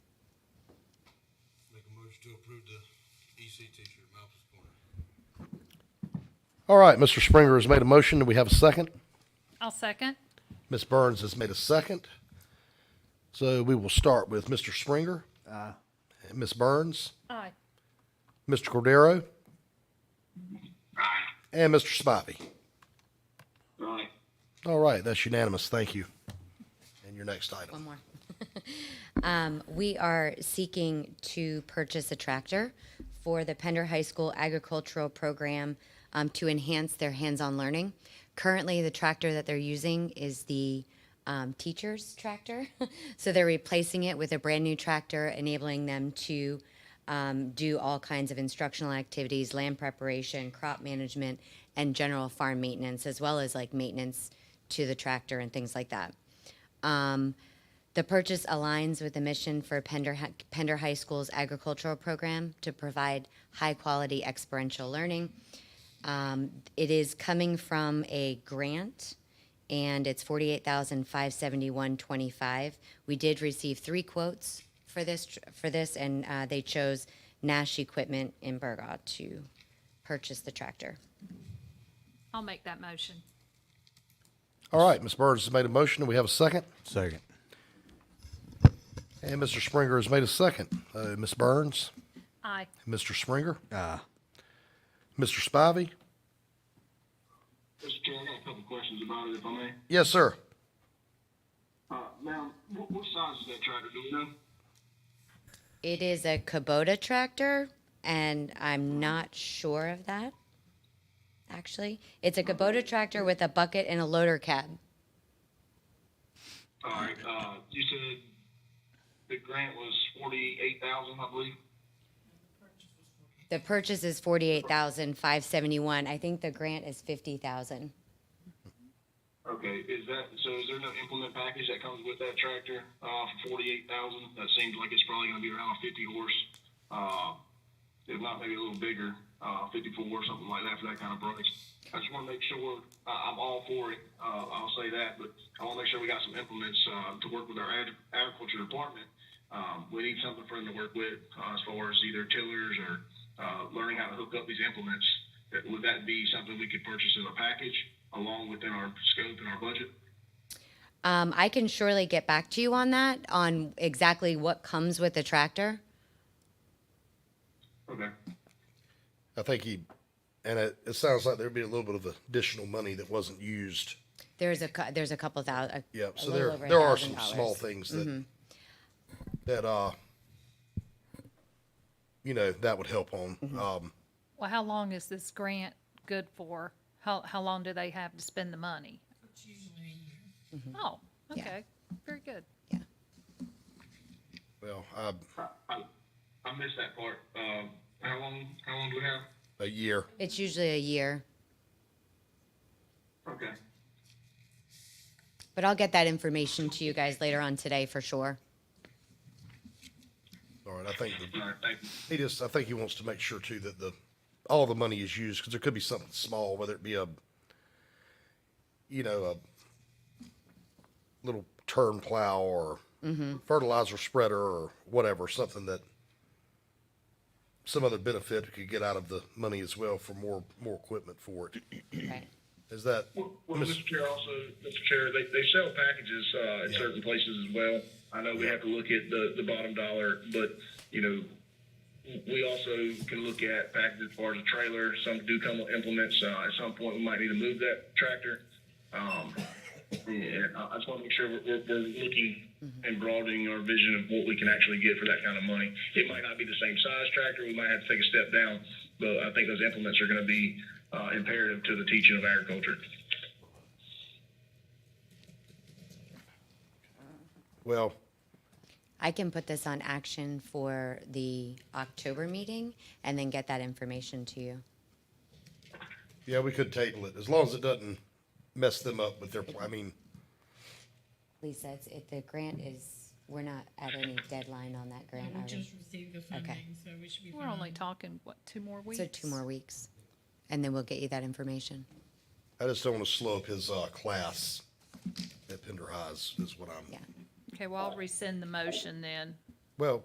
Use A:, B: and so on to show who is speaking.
A: orders to approve the EC T-shirt, Malcolm's Corner.
B: All right, Mr. Springer has made a motion. Do we have a second?
C: I'll second.
B: Ms. Burns has made a second. So we will start with Mr. Springer. Aye. Ms. Burns,
C: Aye.
B: Mr. Cordero. And Mr. Spivey.
D: Aye.
B: All right, that's unanimous. Thank you. And your next
E: One
B: item.
E: more. Um, We are seeking to purchase a tractor for the Pender High School agricultural program um, to enhance their hands-on learning. Currently, the tractor that they're using is the um, teacher's tractor. So they're replacing it with a brand-new tractor, enabling them to um, do all kinds of instructional activities, land preparation, crop management, and general farm maintenance, as well as like maintenance to the tractor and things like that. Um, the purchase aligns with the mission for Pender, Hi- Pender High School's agricultural program to provide high quality experiential learning. Um, it is coming from a grant and it's forty-eight thousand five seventy-one twenty-five. We did receive three quotes for this, tr- for this and, uh, they chose Nash Equipment in Burgaw to purchase the tractor.
C: I'll make that motion.
B: All right, Ms. Burns has made a motion. Do we have a second?
F: Second.
B: And Mr. Springer has made a second. Uh, Ms. Burns,
C: Aye.
B: Mr. Springer,
F: Aye.
B: Mr. Spivey.
D: Mr. Chair, I got a couple questions about it, if I may.
B: Yes, sir.
D: Uh, ma'am, what, what size is that tractor, do you know?
E: It is a Kubota tractor, and I'm not sure of that. Actually, it's a Kubota tractor with a bucket and a loader cab.
D: All right, uh, you said the grant was forty-eight thousand, I believe?
E: The purchase is forty-eight thousand five seventy-one. I think the grant is fifty thousand.
D: Okay, is that, so is there no implement package that comes with that tractor, uh, for forty-eight thousand? That seems like it's probably gonna be around fifty horse, uh, if not maybe a little bigger, uh, fifty-four or something like that for that kind of price. I just wanna make sure, I, I'm all for it, uh, I'll say that, but I wanna make sure we got some implements, uh, to work with our ag- agriculture department. Um, we need something for them to work with, uh, as far as either tillers or, uh, learning how to hook up these implements. That- Would that be something we could purchase as a package along within our scope and our budget?
E: Um, I can surely get back to you on that, on exactly what comes with the tractor.
D: Okay.
B: I think he, and it, it sounds like there'd be a little bit of additional money that wasn't used.
E: There's a, cou- there's a couple thousand.
B: Yep. So there, there are some small things that, that, uh, you know, that would help on. Um,
C: Well, how long is this grant good for? How, how long do they have to spend the money? Oh,
E: Mm-hmm. Yeah.
C: okay. Very good.
B: well, uh,
D: I, I missed that part. Um, how long, how long do we have?
B: a year.
E: It's usually a year,
D: Okay.
E: but I'll get that information to you guys later on today for sure.
B: All right. I think the,
D: All right, thank you.
B: He just, I think he wants to make sure too that the, all the money is used, because there could be something small, whether it be a, you know, a little turn plow or fertilizer spreader or whatever, something that some other benefit we could get out of the money as well for more, more equipment for it.
E: Right.
B: Is that,
D: Well, well, Mr. Chair, also, Mr. Chair, they, they sell packages, uh, in certain places as well. I know we have to look at the, the bottom dollar, but, you know, we also can look at packages as far as a trailer. Some do come with implements. Uh, at some point, we might need to move that tractor. Um, and I I just want to make sure we're, we're, we're looking and broadening our vision of what we can actually get for that kind of money. It might not be the same size tractor. We might have to take a step down, but I think those implements are going to be uh, imperative to the teaching of agriculture.
B: well,
E: I can put this on action for the October meeting and then get that information to you.
B: yeah, we could table it, as long as it doesn't mess them up with their, I mean,
E: Lisa, it's, it, the grant is, we're not at any deadline on that grant,
G: We
E: are we?
G: just received the funding, so we should be
C: We're
G: fine.
C: only talking, what, two more weeks?
E: So two more weeks, and then we'll get you that information.
B: I just don't want to slow up his, uh, class at Pender Highs, is what I'm.
E: Yeah.
C: Okay, well, I'll rescind the motion then.
B: Well,